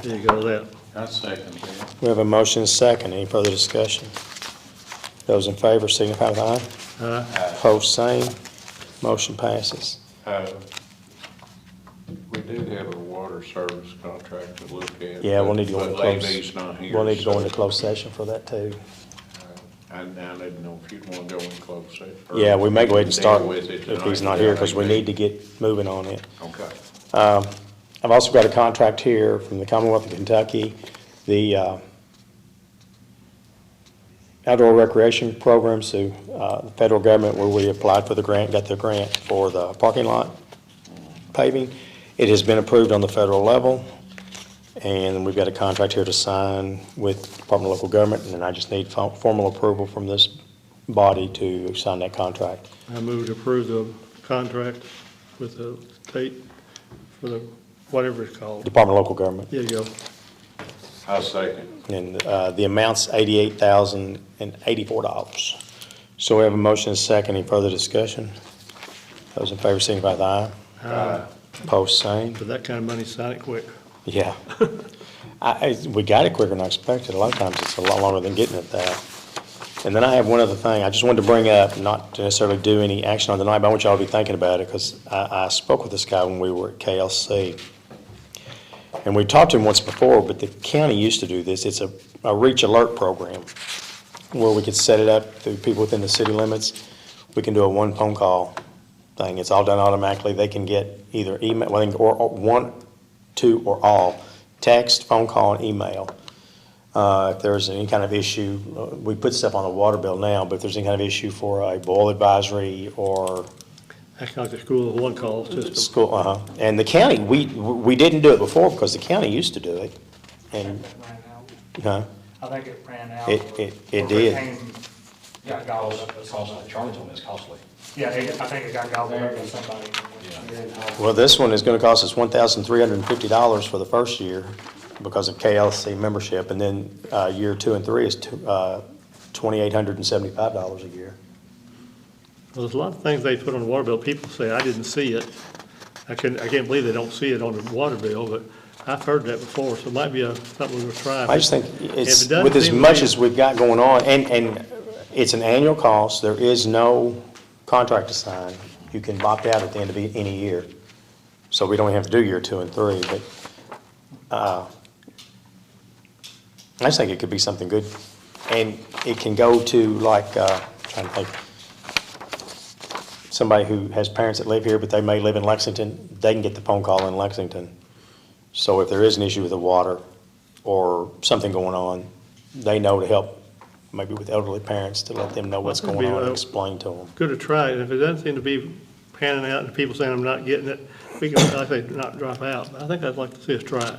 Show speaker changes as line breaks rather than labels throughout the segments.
There you go, that.
I second that.
We have a motion and a second. Any further discussion? Those in favor signify with aye.
Aye.
Opposed, same. Motion passes.
Uh, We do have a water service contract to look at.
Yeah, we'll need to go into
but
close.
Levy's not here.
We'll need to go
so-
into closed session for that too.
I, I didn't know if you'd want to go in close session. or
Yeah, we may go ahead and
deal
start
with it
if he's
tonight.
not here because we need to get moving on it.
Okay.
I've also got a contract here from the Commonwealth of Kentucky, the uh, outdoor recreation programs through uh, the federal government where we applied for the grant, got the grant for the parking lot paving. It has been approved on the federal level, and we've got a contract here to sign with Department of Local Government, and then I just need fo- formal approval from this body to sign that contract.
I move to approve the contract with the state for the, whatever it's called.
Department of Local Government.
There you go.
I second.
And uh, the amount's eighty-eight thousand and eighty-four dollars. So we have a motion and a second. Any further discussion? Those in favor signify with aye.
Uh,
Post same.
For that kind of money, sign it quick.
Yeah. I, I- we got it quicker than I expected. A lot of times it's a lot longer than getting it there. And then I have one other thing I just wanted to bring up, not to necessarily do any action on tonight, but I want y'all to be thinking about it because I, I spoke with this guy when we were at KLC. And we talked to him once before, but the county used to do this. It's a, a reach alert program where we could set it up through people within the city limits. We can do a one phone call thing. It's all done automatically. They can get either email, well, they can- or, or one, two, or all, text, phone call, and email. Uh, if there's any kind of issue, uh, we put stuff on the water bill now, but if there's any kind of issue for a boil advisory or
That's like the school of one call system.
school, uh-huh. And the county, we, we didn't do it before because the county used to do it. And, uh,
ran out.
huh?
I think it ran out.
It- it- it
Or
did.
came- Got gobbled up by somebody.
Charlie's on this costly.
Yeah, it- I think it got gobbled up by somebody.
Well, this one is gonna cost us one thousand three hundred and fifty dollars for the first year because of KLC membership, and then, uh, year two and three is two, uh, twenty-eight hundred and seventy-five dollars a year.
Well, There's a lot of things they put on the water bill. People say, I didn't see it. I can, I can't believe they don't see it on the water bill, but I've heard that before, so it might be a, something we'll try.
I just think it's,
If it doesn't
with as
seem
much
fair-
as we've got going on, and, and it's an annual cost, there is no contract to sign. You can opt out at the end of e- any year. So we don't have to do year two and three, but, uh, I just think it could be something good. And it can go to like, uh, trying to think, somebody who has parents that live here, but they may live in Lexington, they can get the phone call in Lexington. So if there is an issue with the water or something going on, they know to help, maybe with elderly parents, to let them know what's
Well,
going on
that'd be,
and
uh,
explain to them.
Good to try it. And if it doesn't seem to be panning out and people saying I'm not getting it, we can, I say, not drop out. I think I'd like to see us try it.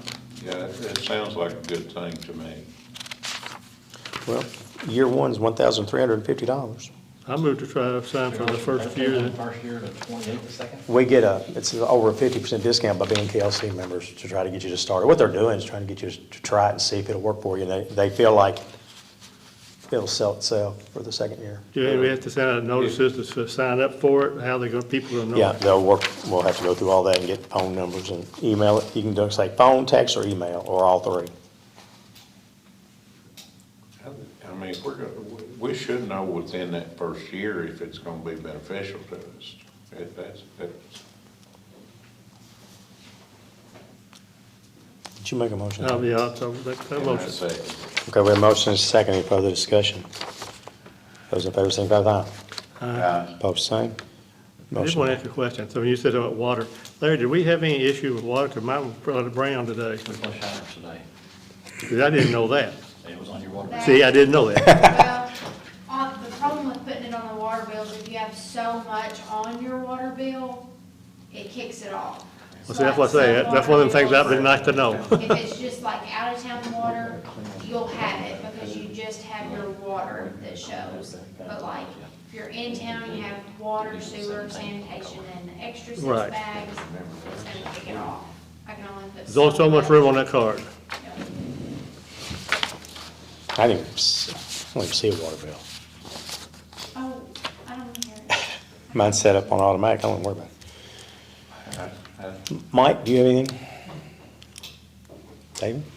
Yeah, it it sounds like a good thing to me.
Well, year one's one thousand three hundred and fifty dollars.
I moved to try to sign for the first few. that-
First year to twenty-eight the second.
We get a, it's over a fifty percent discount by being KLC members to try to get you to start. What they're doing is trying to get you to try it and see if it'll work for you. And they, they feel like it'll sell itself for the second year.
Do we have to send out notices to s- sign up for it? How they gonna, people gonna know?
Yeah, they'll work, we'll have to go through all that and get phone numbers and email it. You can do, say, phone, text, or email, or all three.
I mean, we're gonna, we- we should know within that first year if it's gonna be beneficial to us. If that's, that's,
Did you make a motion?
Oh, yeah, so that, that
and I
motion.
second it.
Okay, we have a motion and a second. Any further discussion? Those in favor, signify with aye.
Aye.
Post same.
I just want
Motion.
to ask you a question. So when you said about water, Larry, did we have any issue with water? Cause mine was probably brown today,
We flushed showers today.
because I didn't know that.
It was on your water.
See, I didn't know that.
Well, on, the problem with putting it on the water bill is if you have so much on your water bill, it kicks it off.
Well, see, that's what I say. That's one of the things that'd be nice to know.
If it's just like out of town water, you'll have it because you just have your water that shows. But like, if you're in town, you have water, sewer, sanitation, and extra six
Right.
bags, it's gonna kick it off. I can only put.
There's only so much room on that card.
Yep.
I didn't, even s- I don't even see a water bill.
Oh, I don't hear.
Mine's set up on automatic. I don't worry about it.
I- I-
Mike, do you have anything? David?